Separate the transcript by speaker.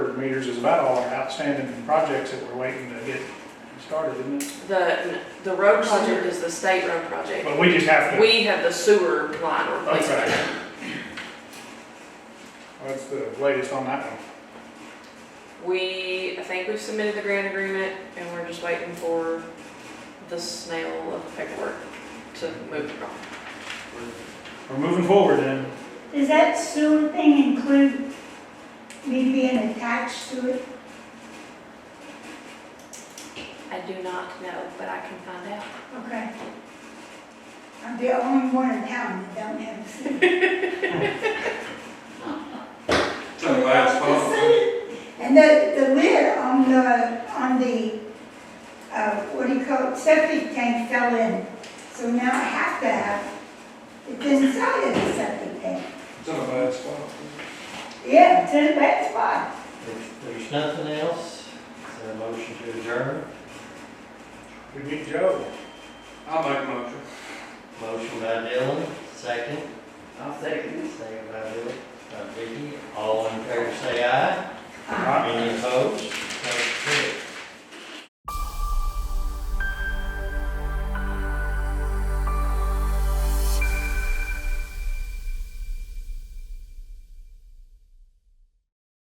Speaker 1: meters is about all our outstanding projects that we're waiting to get started, isn't it?
Speaker 2: The, the road project is the state road project.
Speaker 1: But we just have to,
Speaker 2: We have the sewer line replacement.
Speaker 1: Okay. what's the latest on that one?
Speaker 2: We, I think we've submitted the grant agreement and we're just waiting for the snail of paperwork to move across.
Speaker 1: We're moving forward then.
Speaker 3: Does that sewer thing include me being attached to it?
Speaker 2: I do not know, but I can find out.
Speaker 3: Okay. I'm the only one in town that don't have a sewer.
Speaker 4: It's in the last phone.
Speaker 3: And the, the lid on the, on the, uh, what do you call it, septic tank fell in. So now I have to have, it's inside of the septic tank.
Speaker 4: It's in the last phone.
Speaker 3: Yeah, it's in a bad spot.
Speaker 5: If there's nothing else, is there a motion to adjourn?
Speaker 1: We meet Joe.
Speaker 4: I'll make a motion.
Speaker 5: Motion by Dylan, second.
Speaker 2: I'll second.
Speaker 5: Second by Dylan, by Vicky. All in favor, say aye.
Speaker 3: Uh,
Speaker 1: Right?
Speaker 5: Any opposed?